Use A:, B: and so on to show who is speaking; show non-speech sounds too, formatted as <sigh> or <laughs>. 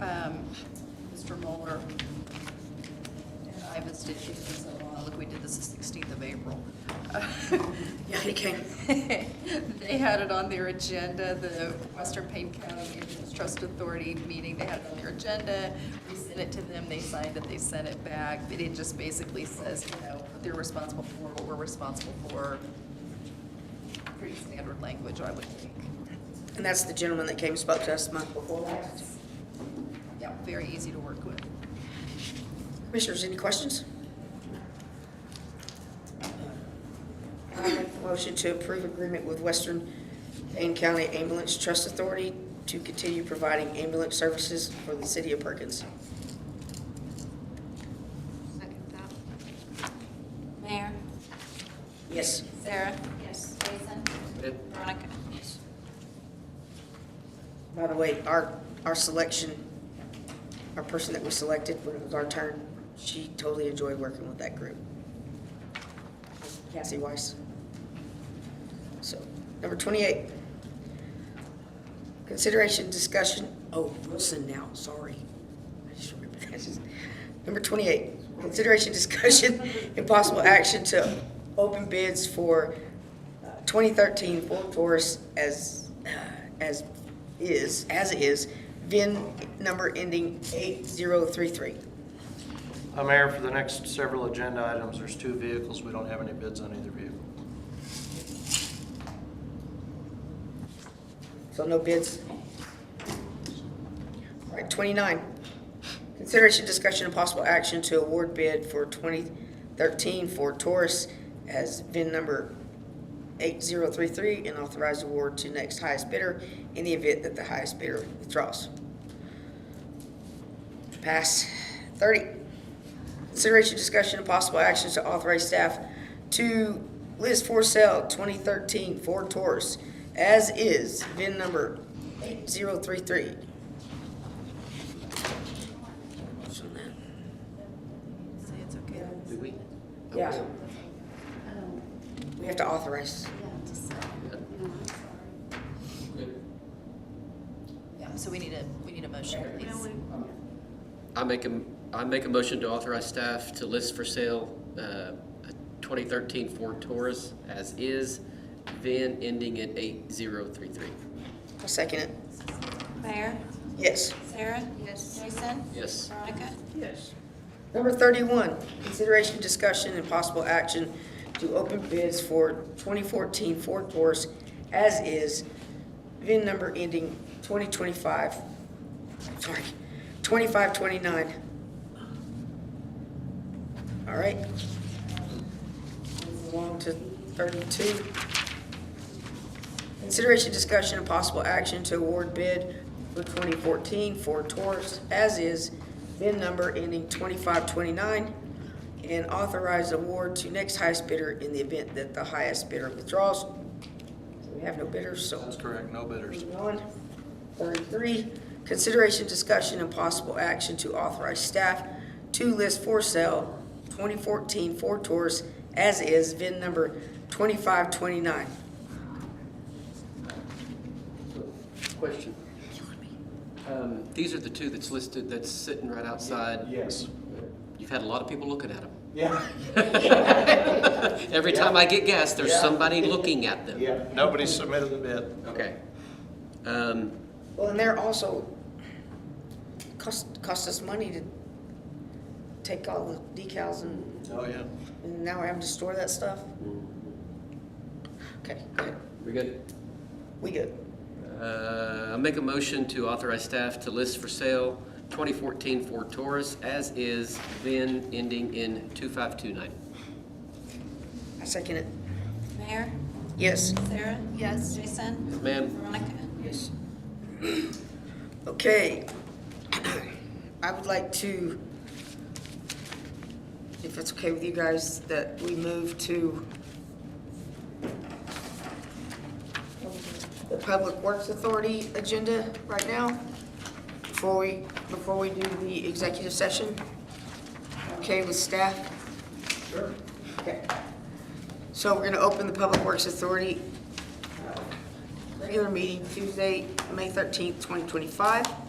A: um, Mr. Mueller and I visited you for so long, look, we did this the 16th of April.
B: <laughs> Yeah, he came.
A: <laughs> They had it on their agenda, the Western Payne County Ambulance Trust Authority meeting, they had it on their agenda. We sent it to them, they signed it, they sent it back, but it just basically says, you know, what they're responsible for, what we're responsible for. Pretty standard language, I would think.
B: And that's the gentleman that came and spoke to us the month before last.
A: Yeah, very easy to work with.
B: Commissioners, any questions? I make a motion to approve agreement with Western Payne County Ambulance Trust Authority to continue providing ambulance services for the city of Perkins.
C: Second that.
D: Mayor?
B: Yes.
D: Sarah? Yes. Jason? Veronica?
B: By the way, our, our selection, our person that we selected when it was our turn, she totally enjoyed working with that group. Cassie Weiss. So, number twenty-eight. Consideration discussion, oh, Wilson now, sorry. I just remembered <laughs> that. Number twenty-eight, consideration discussion <laughs> and possible action to open bids for uh, twenty thirteen Ford Taurus as, uh, as is, as is, VIN number ending eight zero three three.
E: Uh, Mayor, for the next several agenda items, there's two vehicles. We don't have any bids on either vehicle.
B: So no bids. All right, twenty-nine. Consideration, discussion, and possible action to award bid for twenty thirteen Ford Taurus as VIN number eight zero three three and authorize award to next highest bidder in the event that the highest bidder withdraws. Pass. Thirty. Consideration, discussion, and possible actions to authorize staff to list for sale twenty thirteen Ford Taurus as is, VIN number eight zero three three.
A: Say it's okay.
E: Do we?
B: Yeah. We have to authorize.
A: Yeah, so we need a, we need a motion, please.
F: I make a, I make a motion to authorize staff to list for sale uh, a 2013 Ford Taurus as is, VIN ending in 8033.
B: I'll second it.
D: Mayor?
B: Yes.
D: Sarah? Yes. Jason?
F: Yes.
D: Veronica?
B: Number thirty-one, consideration, discussion, and possible action to open bids for twenty fourteen Ford Taurus as is, VIN number ending twenty twenty-five, sorry, twenty-five twenty-nine. All right. Move along to thirty-two. Consideration, discussion, and possible action to award bid for 2014 Ford Taurus as is, VIN number ending 2529, and authorize award to next highest bidder in the event that the highest bidder withdraws. We have no bidders, so.
E: That's correct, no bidders.
B: Moving on. Thirty-three, consideration, discussion, and possible action to authorize staff to list for sale 2014 Ford Taurus as is, VIN number 2529.
F: Question. Um, These are the two that's listed, that's sitting right outside.
G: Yes.
F: You've had a lot of people looking at them.
G: Yeah.
F: Every time I get gas, there's
G: Yeah.
F: somebody looking at them.
G: Yeah.
E: Nobody submitted a bid.
F: Okay. Um,
B: Well, and they're also, cost, cost us money to take all the decals and,
E: Oh, yeah.
B: and now we're having to store that stuff? Okay, good,
F: We good?
B: we good.
F: Uh, I make a motion to authorize staff to list for sale 2014 Ford Taurus as is, VIN ending in 2529.
B: I second it.
D: Mayor?
B: Yes.
D: Sarah? Yes. Jason?
F: Ma'am?
D: Veronica?
B: Okay. <clears throat> I would like to, if it's okay with you guys, that we move to the Public Works Authority agenda right now, before we, before we do the executive session. Okay with staff? Sure. Okay. So we're gonna open the Public Works Authority regular meeting Tuesday, May 13th, 2025.